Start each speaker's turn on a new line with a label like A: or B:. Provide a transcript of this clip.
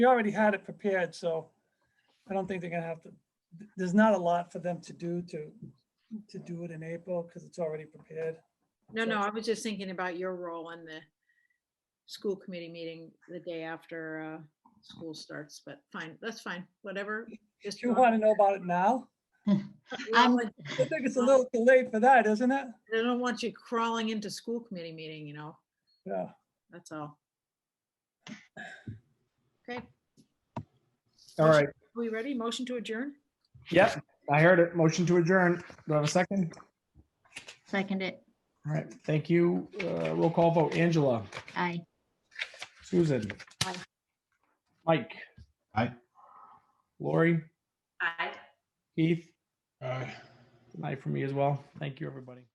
A: We already had it prepared, so I don't think they're gonna have to, there's not a lot for them to do to, to do it in April, because it's already prepared.
B: No,
A: So-
B: no, I was just thinking about your role in the school committee meeting the day after uh, school starts, but fine, that's fine, whatever.
A: Do
B: Just
A: you
B: drop-
A: want to know about it now?
B: we don't
C: I'm-
B: want-
A: I think it's a little too late for that, isn't it?
B: I don't want you crawling into school committee meeting, you know,
A: Yeah.
B: that's all. Okay,
D: All right.
B: we ready? Motion to adjourn?
D: Yep, I heard it. Motion to adjourn. Do I have a second?
C: Second it.
D: All right, thank you. Uh, Roll call vote. Angela,
C: Aye.
D: Susan.
C: Aye.
D: Mike.
E: Aye.
D: Lori,
B: Aye.
D: Keith. Aye. Aye for me as well. Thank you, everybody.